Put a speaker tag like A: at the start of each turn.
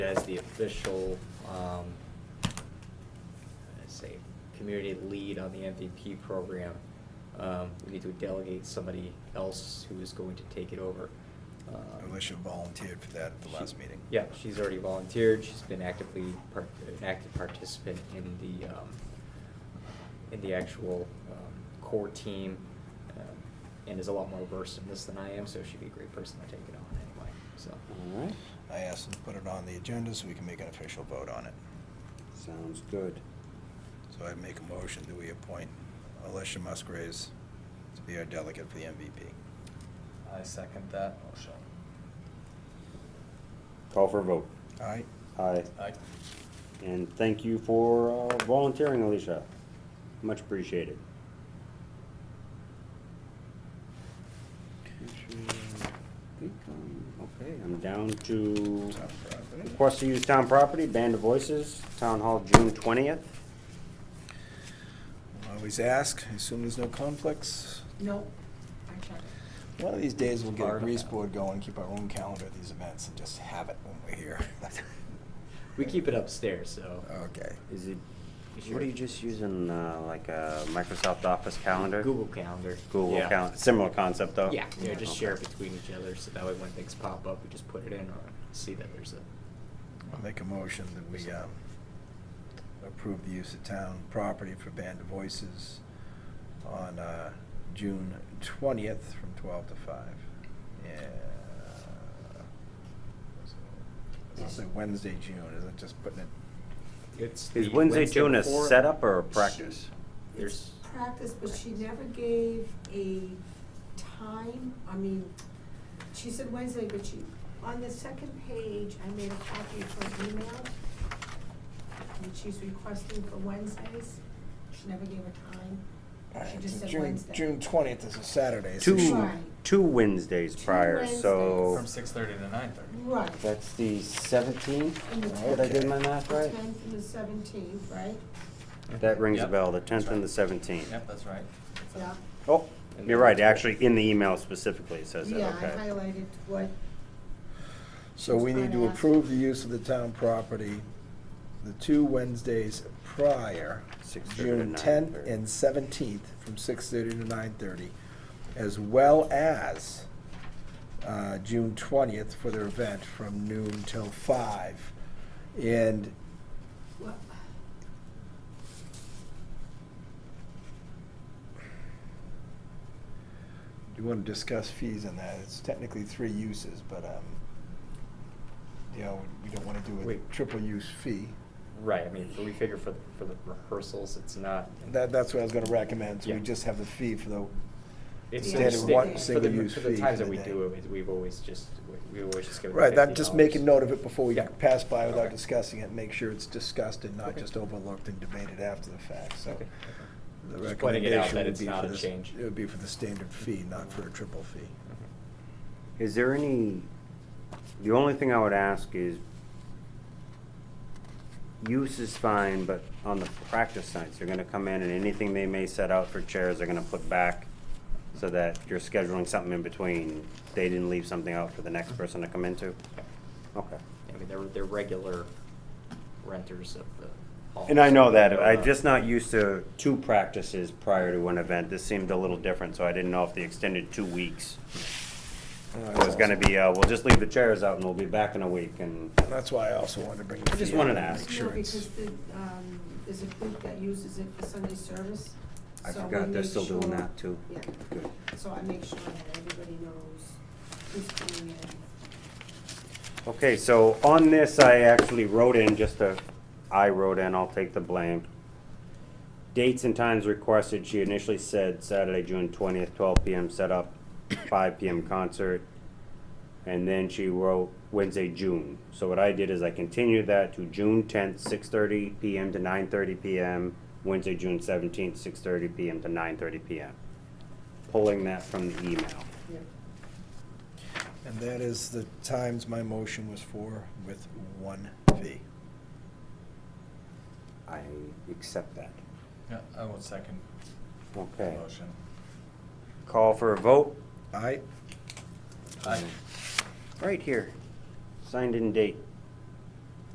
A: official, um, I say, community lead on the MVP program, um, we need to delegate somebody else who is going to take it over. Um,
B: Alicia volunteered for that at the
A: she-
B: last meeting.
A: Yeah, she's already volunteered, she's been actively, part- an active participant in the, um, in the actual um, core team, um, and is a lot more versed in this than I am, so she'd be a great person to take it on anyway, so.
C: All right,
B: I asked them to put it on the agenda so we can make an official vote on it.
C: sounds good.
B: So I'd make a motion that we appoint Alicia Musgraves to be our delegate for the MVP.
D: I second that motion.
C: Call for a vote.
B: All right?
C: Aye.
D: Aye.
C: And thank you for uh, volunteering, Alicia. Much appreciated. Okay, I'm down to request to use town property, Band of Voices, Town Hall, June twentieth.
B: Always ask, assume there's no conflicts.
E: No, I checked.
B: One of these days, we'll get a
A: Barb.
B: grease board going, keep our own calendar of these events, and just have it when we're here.
A: We keep it upstairs, so.
B: Okay.
C: Is it,
A: Is
C: what
A: your-
C: are you just using, uh, like a Microsoft Office calendar?
A: Google Calendar.
C: Google
A: Yeah.
C: calendar, similar concept though?
A: Yeah, yeah, just
C: Okay.
A: share it between each other, so that way when things pop up, we just put it in or see that there's
B: I'll
A: a.
B: make a motion that we um, approve the use of town property for Band of Voices on uh, June 20th from 12 to 5. Yeah. It's also Wednesday, June, isn't it just putting it?
A: It's
C: Is
A: the
C: Wednesday, June a
A: before-
C: setup or a practice?
A: There's-
E: It's practice, but she never gave a time, I mean, she said Wednesday, but she, on the second page, I made a copy of her email. And she's requesting for Wednesdays, she never gave a time, she just said
B: June-
E: Wednesday.
B: June 20th is a Saturday. so she-
C: Two,
E: Right.
C: two Wednesdays
E: Two
C: prior, so.
D: From six thirty to nine thirty.
E: Right,
C: That's the seventeenth,
E: And the
C: did I do my
B: Okay.
C: math
E: the
C: right?
E: tenth and the seventeenth, right?
C: That rings a
D: Yep.
C: bell, the tenth
D: That's
C: and
D: right.
C: the seventeenth.
D: Yep, that's right.
E: Yeah,
C: Oh,
A: And
C: you're
A: then-
C: right, actually, in the email specifically it says
E: yeah, I
C: that, okay.
E: highlighted what,
B: So we need to
E: Friday after.
B: approve the use of the town property the two Wednesdays prior,
C: 6:30 to
B: June 10th
C: 9:30.
B: and 17th, from 6:30 to 9:30, as well as uh, June 20th for their event from noon till five. And
E: what,
B: do you want to discuss fees on that? It's technically three uses, but, um, you know, we don't want to do a
A: Wait.
B: triple use fee.
A: Right, I mean, but we figure for, for the rehearsals, it's not.
B: That, that's what I was going to recommend, so we
A: Yeah.
B: just have the fee for the
A: It's
E: Standard
A: just
E: one
A: for the,
B: single-use
A: for the
B: fee
A: times
B: for
A: that we
B: the day.
A: do it, we've always just, we- we always just give it
B: Right,
A: that
B: that, just make a note of it before we
A: Yeah.
B: pass by without
A: Okay.
B: discussing it, make sure it's discussed and not
A: Okay.
B: just overlooked and debated after the fact, so.
A: Okay, okay.
B: the
A: Just pointing it out
B: recommendation
A: that
B: would
A: it's
B: be
A: not
B: for
A: a
B: this-
A: change.
B: It would be for the standard fee, not for a triple fee.
C: Is there any, the only thing I would ask is, use is fine, but on the practice nights, they're gonna come in and anything they may set out for chairs, they're gonna put back so that you're scheduling something in between, they didn't leave something out for the next person to come into? Okay.
A: I mean, they're, they're regular renters of the hall.
C: And I know that, I'm
A: Uh,
C: just not used to two practices prior to an event, this seemed a little different, so I didn't know if the extended two weeks was gonna be, uh, we'll just leave the chairs out and we'll be back in a week, and,
B: That's why I also wanted to bring the
C: I just
B: fee up
C: wanted to
B: and
C: ask.
B: make
E: no,
B: sure it's-
E: because the, um, there's a group that uses it for Sunday service.
C: I
E: so we
C: forgot they're
E: make
C: still doing
E: sure-
C: that, too.
E: Yeah.
C: Good.
E: So I make sure that everybody knows who's coming in.
C: Okay, so on this, I actually wrote in, just a, I wrote in, I'll take the blame. Dates and times requested, she initially said Saturday, June twentieth, twelve PM setup, five PM concert. And then she wrote Wednesday, June. So what I did is I continued that to June tenth, six thirty PM to nine thirty PM. Wednesday, June seventeenth, six thirty PM to nine thirty PM. Pulling that from the email.
B: And that is the times my motion was for with one fee.
C: I accept that.
D: Yeah, I will second the
C: Okay.
D: motion.
C: Call for a vote.
B: Aye,
D: Aye.
C: Right here, signed in date,